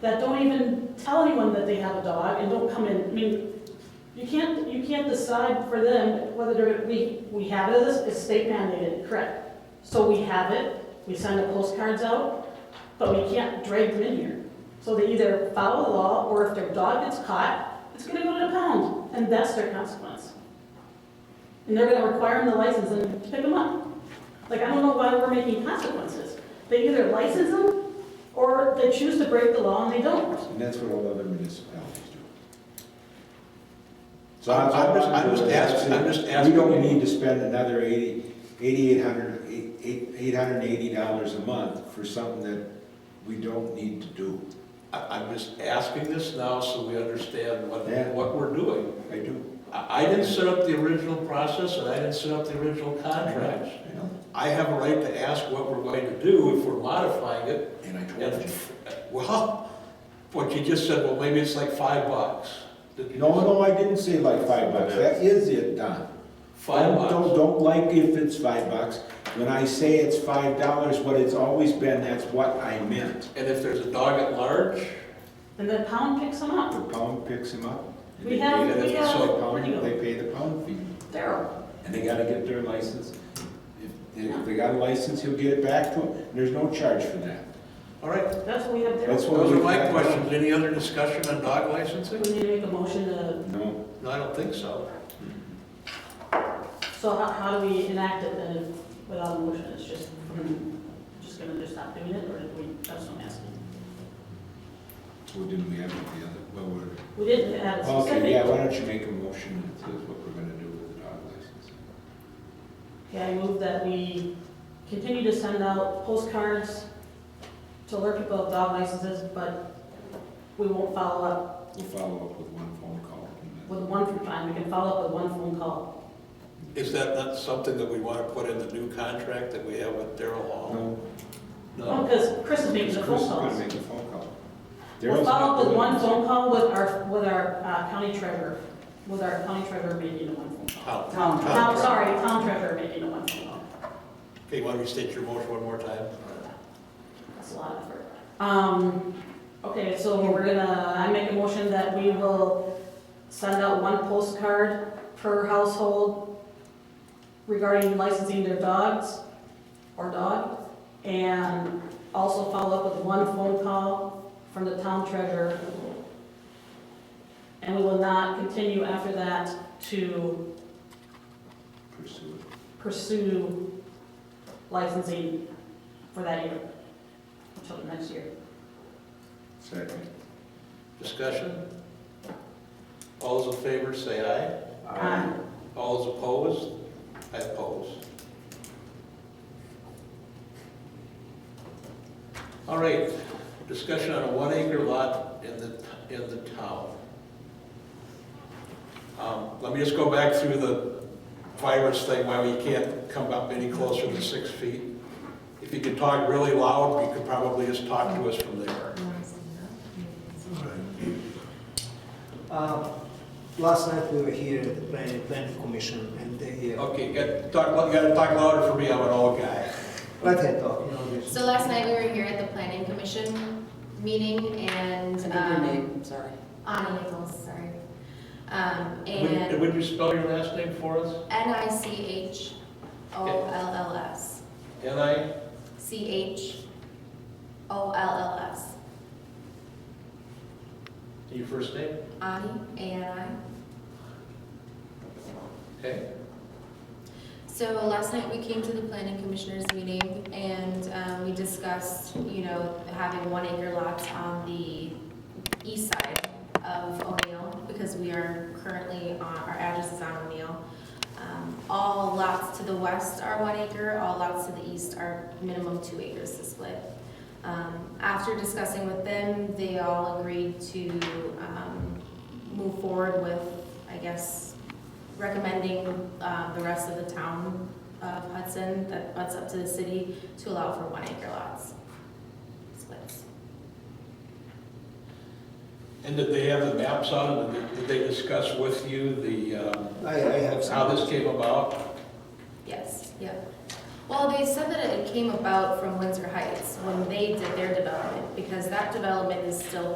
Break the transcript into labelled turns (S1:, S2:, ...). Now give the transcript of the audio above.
S1: that don't even tell anyone that they have a dog and don't come in, I mean, you can't, you can't decide for them whether they're, we, we have it as, it's state mandated, correct? So we have it, we send the postcards out, but we can't drag them in here. So they either follow the law, or if their dog gets caught, it's gonna go to the pound, and that's their consequence. And they're gonna require them the license and pick them up. Like, I don't know why we're making consequences. They either license them, or they choose to break the law and they don't.
S2: And that's what all other municipalities do. So I'm I'm just, I'm just asking, I'm just asking. We don't need to spend another eighty, eighty-eight hundred, eight, eight hundred and eighty dollars a month for something that we don't need to do.
S3: I- I'm just asking this now so we understand what,
S2: Yeah.
S3: what we're doing.
S2: I do,
S3: I I didn't set up the original process and I didn't set up the original contracts.
S2: I know,
S3: I have a right to ask what we're going to do if we're modifying it.
S2: and I told
S3: And,
S2: you.
S3: well, what you just said, well, maybe it's like five bucks. Did you
S2: No,
S3: just-
S2: no, I didn't say like five bucks, that is it, Don.
S3: Five
S2: Don't- Don't,
S3: bucks.
S2: don't like if it's five bucks. When I say it's five dollars, what it's always been, that's what I meant.
S3: And if there's a dog at large,
S1: And the pound picks them
S2: The
S1: up.
S2: pound picks him up. and
S1: We
S2: they
S1: have-
S2: pay the-
S1: we have-
S2: so
S1: where do you
S2: pound-
S1: go?
S2: They pay the pound fee,
S1: Daryl,
S2: and they gotta get their license. If- If they got a license, he'll get it back to them, and there's no charge for that.
S3: all right.
S1: that's what we have
S2: That's
S1: Daryl.
S2: what
S3: Those are
S2: we've
S3: my
S2: had.
S3: questions. Any other discussion on dog licensing?
S1: We need to make a motion to,
S2: No,
S3: No, I don't think so.
S1: so how, how do we enact it then if- without a motion? It's just, just gonna just stop doing it, or do we, that's what I'm asking.
S2: well, didn't we have the other, well, we're,
S1: We didn't add a
S2: okay, yeah,
S1: specific.
S2: why don't you make a motion that says what we're gonna do with the dog license?
S1: Yeah, I move that we continue to send out postcards to alert people of dog licenses, but we won't follow up
S2: We'll follow up with one phone call. and then-
S1: with one, fine, we can follow up with one phone call.
S3: Is that not something that we want to put in the new contract that we have with Daryl Hall?
S2: No,
S1: Oh,
S3: No.
S1: because Chris is making the phone
S2: Chris is gonna
S1: calls.
S2: make a phone call.
S1: We'll
S2: Daryl's
S1: follow up
S2: not
S1: with
S2: doing
S1: one
S2: this.
S1: phone call with our, with our uh, county treasurer, with our county treasurer making a one phone call.
S3: Town.
S4: Town.
S1: Town, sorry, town treasurer making a one phone call.
S3: Okay, you want to restate your motion one more time?
S1: That's a lot of effort. Um, okay, so we're gonna, I make a motion that we will send out one postcard per household regarding licensing their dogs or dog, and also follow up with one phone call from the town treasurer. And we will not continue after that to
S2: Pursue it.
S1: pursue licensing for that year, until the next year.
S2: Second.
S3: Discussion? All those in favor, say aye.
S1: Um,
S3: All those opposed? I oppose. All right, discussion on a one acre lot in the, in the town. Um, Let me just go back through the virus thing, why we can't come up any closer than six feet. If you could talk really loud, you could probably just talk to us from there.
S5: Uh, Last night we were here at the planning, planning commission and they, uh,
S3: Okay, you gotta talk, you gotta talk louder for me, I'm an old guy.
S5: let her talk, you know, this.
S6: So last night, we were here at the planning commission meeting and,
S4: Is it your
S6: um,
S4: name? Sorry.
S6: Ani Nichols, sorry. Um,
S3: Would,
S6: and
S3: would you spell your last name for us?
S6: N I C H O L L S,
S3: N I,
S6: C H O L L S,
S3: your first name,
S6: Ani, A N I.
S3: okay?
S6: So last night, we came to the planning commissioners meeting and, um, we discussed, you know, having one acre lots on the east side of O'Neill, because we are currently on, our address is on O'Neill. Um, All lots to the west are one acre, all lots to the east are minimum two acres to split. Um, After discussing with them, they all agreed to um, move forward with, I guess, recommending uh, the rest of the town of Hudson that butts up to the city to allow for one acre lots, splits.
S3: And did they have the maps out, and did- did they discuss with you the, um,
S5: I, I have some.
S3: how this came about?
S6: Yes, yep. Well, they said that it came about from Windsor Heights when they did their development, because that development is still